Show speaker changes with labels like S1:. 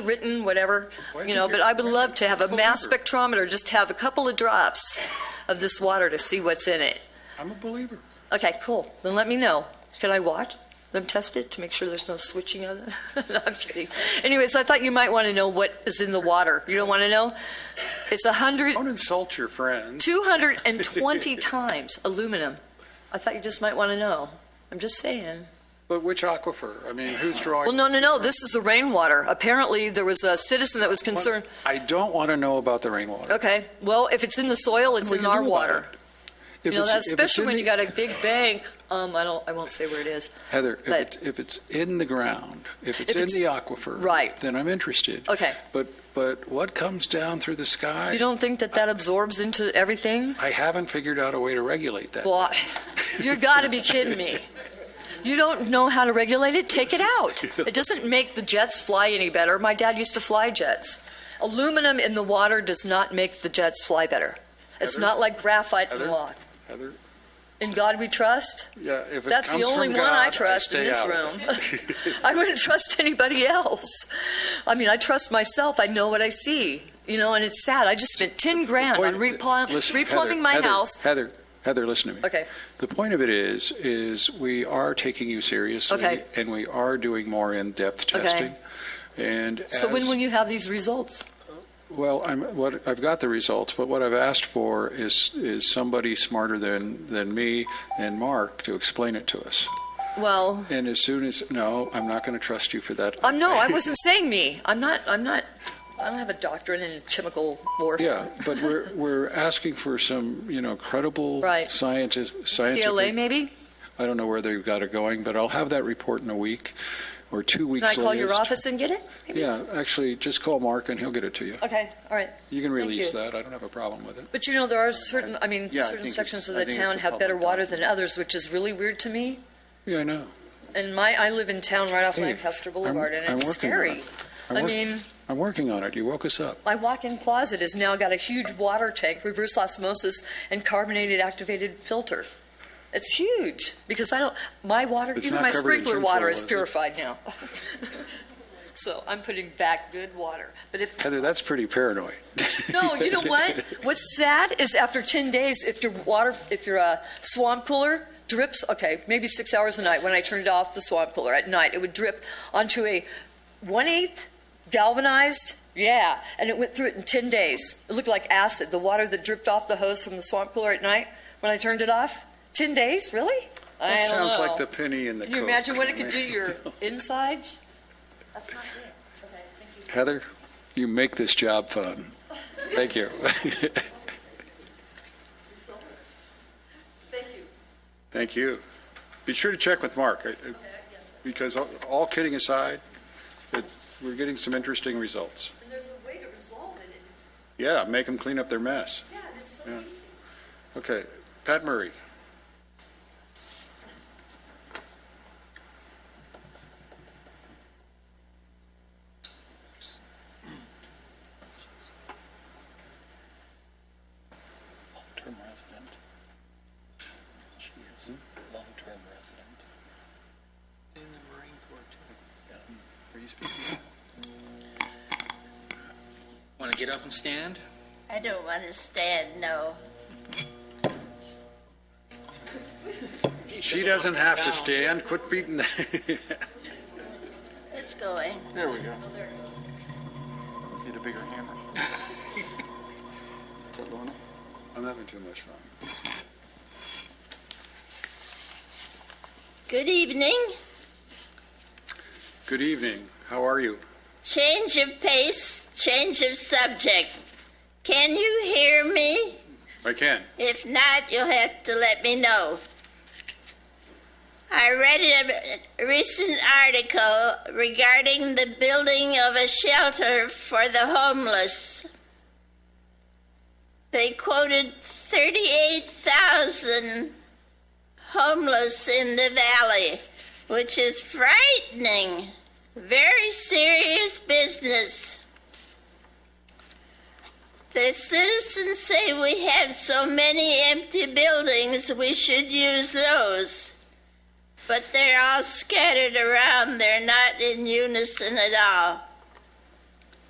S1: written, whatever, you know, but I would love to have a mass spectrometer, just have a couple of drops of this water to see what's in it.
S2: I'm a believer.
S1: Okay, cool. Then let me know. Can I watch them test it to make sure there's no switching on it? No, I'm kidding. Anyways, I thought you might want to know what is in the water. You don't want to know? It's a hundred,
S2: Don't insult your friends.
S1: two hundred and twenty times aluminum. I thought you just might want to know. I'm just saying.
S2: But which aquifer? I mean, who's drawing?
S1: Well, no, no, no, this is the rainwater. Apparently, there was a citizen that was concerned.
S2: I don't want to know about the rainwater.
S1: Okay, well, if it's in the soil, it's
S2: What
S1: in
S2: do you
S1: our
S2: do about
S1: water.
S2: it? If
S1: You know,
S2: it's-
S1: that's
S2: if it's
S1: especially
S2: in
S1: when
S2: the-
S1: you got a big bank, um, I don't, I won't say where it is.
S2: Heather, if
S1: but-
S2: it's, if it's in the ground, if it's
S1: If
S2: in
S1: it's-
S2: the aquifer.
S1: Right.
S2: Then I'm interested.
S1: Okay.
S2: But, but what comes down through the
S1: You
S2: sky?
S1: don't think that that absorbs into everything?
S2: I haven't figured out a way to regulate that.
S1: Well, I- you gotta be kidding me. You don't know how to regulate it? Take it out. It doesn't make the jets fly any better. My dad used to fly jets. Aluminum in the water does not make the jets fly better. It's
S2: Heather?
S1: not like graphite and
S2: Heather?
S1: rock.
S2: Heather,
S1: In God we trust?
S2: yeah, if it
S1: That's the
S2: comes
S1: only
S2: from
S1: one I
S2: God,
S1: trust in
S2: stay
S1: this
S2: out of
S1: room.
S2: it.
S1: I wouldn't trust anybody else. I mean, I trust myself. I know what I see. You know, and it's sad. I just spent 10 grand on
S2: Point-
S1: repl-
S2: listen, Heather,
S1: replumbing my
S2: Heather,
S1: house.
S2: Heather, Heather, listen to me.
S1: Okay.
S2: The point of it is, is we are taking you seriously.
S1: Okay.
S2: And we are doing more in-depth
S1: Okay.
S2: testing. And as.
S1: So when will you have these results?
S2: Well, I'm, what, I've got the results, but what I've asked for is, is somebody smarter than, than me and Mark to explain it to us.
S1: Well,
S2: And as soon as, no, I'm not going to trust you for that.
S1: I'm no, I wasn't saying me. I'm not, I'm not, I don't have a doctorate in chemical
S2: Yeah,
S1: warfare.
S2: but we're, we're asking for some, you know, credible
S1: Right.
S2: scientist, scientific.
S1: CLA maybe?
S2: I don't know where they've got it going, but I'll have that report in a week or two
S1: Can I
S2: weeks.
S1: call your
S2: latest.
S1: office and get it? maybe?
S2: Yeah, actually, just call Mark and he'll get it to you.
S1: Okay, all right.
S2: You can
S1: Thank
S2: release
S1: you.
S2: that. I don't have a problem with it.
S1: But you know, there are certain, I mean,
S2: Yeah, I think
S1: certain
S2: it's-
S1: sections of
S2: I
S1: the
S2: think it's
S1: town
S2: a
S1: have better
S2: public
S1: water than others, which is really weird to me.
S2: Yeah, I know.
S1: And my, I live in town right off
S2: Hey,
S1: Lancaster Boulevard,
S2: I'm-
S1: and
S2: I'm
S1: it's
S2: working on
S1: scary.
S2: it. I'm
S1: I
S2: work-
S1: mean,
S2: I'm working on it. You woke us up.
S1: my walk-in closet has now got a huge water tank, reverse osmosis, and carbonated activated filter. It's huge, because I don't, my water,
S2: It's
S1: even
S2: not
S1: my
S2: covered in
S1: sprinkler
S2: tinfoil,
S1: water is
S2: is it?
S1: purified now. So I'm putting back good water. But if,
S2: Heather, that's pretty paranoid.
S1: No, you know what? What's sad is after 10 days, if your water, if your uh, swamp cooler drips, okay, maybe six hours a night, when I turned off the swamp cooler at night, it would drip onto a one-eighth galvanized, yeah, and it went through it in 10 days. It looked like acid, the water that dripped off the hose from the swamp cooler at night when I turned it off. 10 days, really? I
S2: That
S1: don't
S2: sounds like
S1: know.
S2: the penny in the
S1: Can you
S2: Coke.
S1: imagine what
S2: I
S1: it could do
S2: mean,
S1: to your insides? That's not good. Okay, thank you.
S2: Heather, you make this job fun. Thank you.
S1: Thank you.
S2: Thank you. Be sure to check with Mark, I- I- because all- all kidding aside, it- we're getting some interesting results.
S1: And there's a way to resolve it.
S2: Yeah, make them clean up their mess.
S1: Yeah, it's so
S2: Yeah.
S1: easy.
S2: Okay, Pat Murray.
S3: long-term resident. She is a
S2: Hmm?
S3: long-term resident. In the Marine Corps, too. Hmm. Are you speaking?
S4: Want to get up and stand?
S5: I don't want to stand, no.
S2: She doesn't have to stand, quit beating the,
S5: It's going.
S3: There we go. Need a bigger hammer. Is that Lorna?
S2: I'm having too much fun.
S5: Good evening.
S2: Good evening, how are you?
S5: Change of pace, change of subject. Can you hear me?
S2: I can.
S5: If not, you'll have to let me know. I read a- a recent article regarding the building of a shelter for the homeless. They quoted 38,000 homeless in the valley, which is frightening. Very serious business. The citizens say we have so many empty buildings, we should use those. But they're all scattered around, they're not in unison at all.